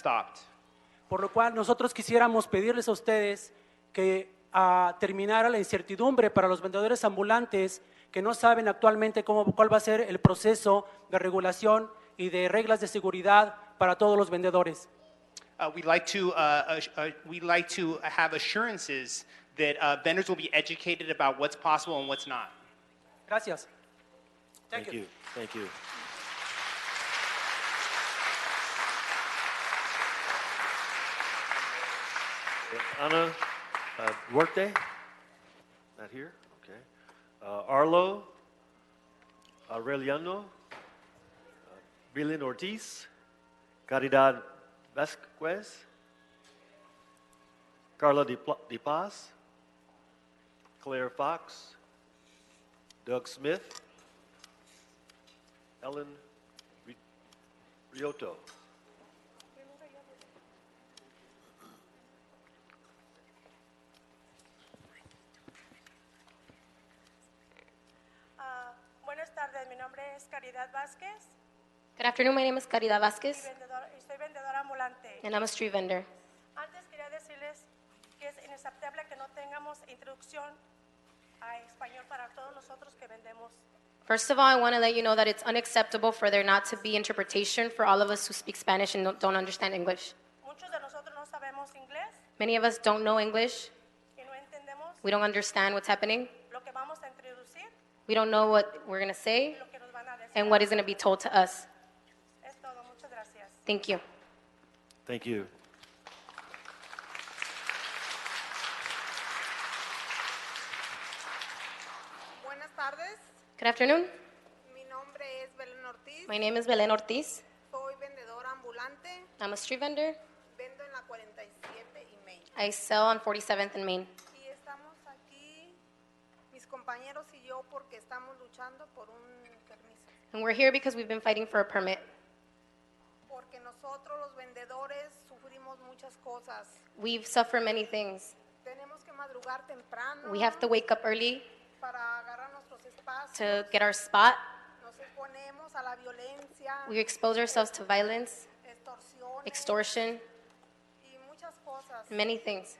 stopped. Por lo cual nosotros quisiéramos pedirles a ustedes que ah, terminara la incertidumbre para los vendedores ambulantes que no saben actualmente cómo, cuál va a ser el proceso de regulación y de reglas de seguridad para todos los vendedores. Uh, we'd like to uh, ass- uh, we'd like to have assurances that uh, vendors will be educated about what's possible and what's not. Gracias. Thank Thank you. you, thank you. Anna, uh, Duarte, not here, okay. Uh, Arlo, Aureliano, uh, Belen Ortiz, Caridad Vasquez, Carla De Pla- De Paz, Claire Fox, Doug Smith, Ellen Ri- Rioto. Ah, buenas tardes, mi nombre es Caridad Vázquez Good afternoon. My name is Caridad y, Vasquez, vendedor- y soy vendedora ambulante. and I'm a street vendor. Antes quería decirles que es inaceptable que no tengamos introducción a español para todos nosotros que vendemos. First of all, I want to let you know that it's unacceptable for there not to be interpretation for all of us who speak Spanish and don't, don't understand English. Muchos de nosotros no sabemos inglés Many of us don't know English. y no entendemos We don't understand what's happening. lo que vamos a introducir We don't know what we're going to y say lo que nos van a decir. and what is going to be told to us. Es todo, muchas gracias. Thank you. Thank you. Buenas tardes, Good afternoon. mi nombre es Belén Ortiz, My name is Belen Ortiz. soy vendedora ambulante, I'm a street vendor. vendo en la 47 y Main. I sell on 47th and Main. Y estamos aquí, mis compañeros y yo, porque estamos luchando por un permiso. And we're here because we've been fighting for a permit. Porque nosotros los vendedores sufrimos muchas cosas. We've suffered many things. Tenemos que madrugar temprano We have to wake up early para agarrar nuestros espacios. to get our spot. Nos exponemos a la violencia, We expose ourselves to violence, extorsiones extortion, y muchas cosas. many things.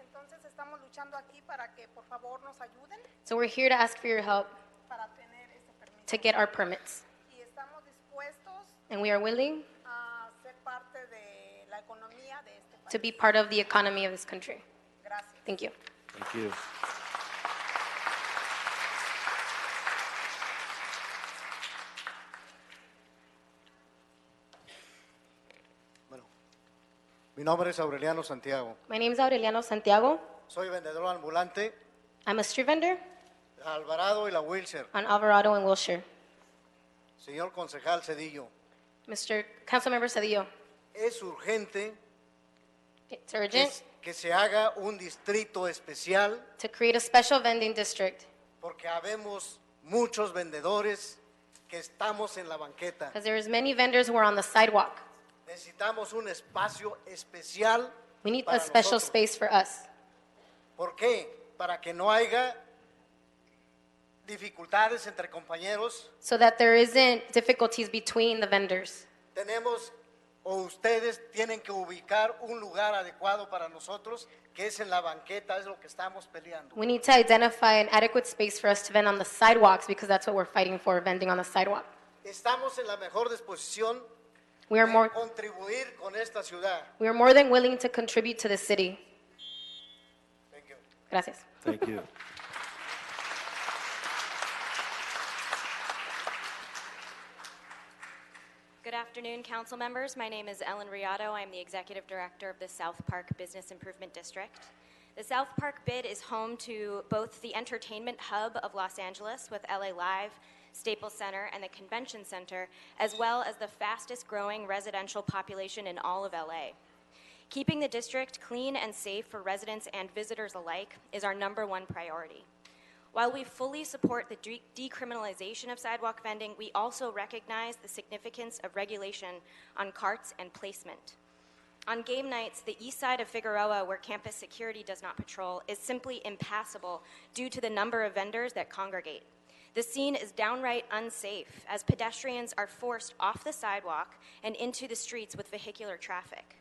Entonces estamos luchando aquí para que por favor nos ayuden So we're here to ask for your help para tener ese permiso. to get our permits. Y estamos dispuestos And we are willing a ser Ah, parte de la economía de este país. to be part of the economy of this country. Gracias. Thank you. Thank you. Bueno, mi nombre es Aureliano Santiago. My name is Aureliano Santiago. Soy vendedor ambulante I'm a street vendor de Alvarado y la Wilshire. on Alvarado and Wilshire. Señor concejal Cedillo, Mr. Councilmember Cedillo, es urgente it's que, urgent s- que se haga un distrito especial to create a special vending district porque habemos muchos vendedores que estamos en la banqueta. because there is many vendors who are on the sidewalk. Necesitamos un espacio especial. We need para a special nosotros. space for us. ¿Por qué? Para que no haya dificultades entre compañeros. so that there isn't difficulties between the vendors. tenemos o ustedes tienen que ubicar un lugar adecuado para nosotros, que es en la banqueta, es lo que estamos peleando. We need to identify an adequate space for us to vend on the sidewalks because that's what we're fighting for, vending on the sidewalk. Estamos en la mejor disposición We are more, de contribuir con esta ciudad. we are more than willing to contribute to the city. Thank you. Gracias. Thank you. Good afternoon, council members. My name is Ellen Riato. I'm the executive director of the South Park Business Improvement District. The South Park bid is home to both the entertainment hub of Los Angeles with LA Live, Staples Center, and the Convention Center, as well as the fastest growing residential population in all of LA. Keeping the district clean and safe for residents and visitors alike is our number one priority. While we fully support the de- decriminalization of sidewalk vending, we also recognize the significance of regulation on carts and placement. On game nights, the east side of Figueroa, where campus security does not patrol, is simply impassable due to the number of vendors that congregate. The scene is downright unsafe as pedestrians are forced off the sidewalk and into the streets with vehicular traffic.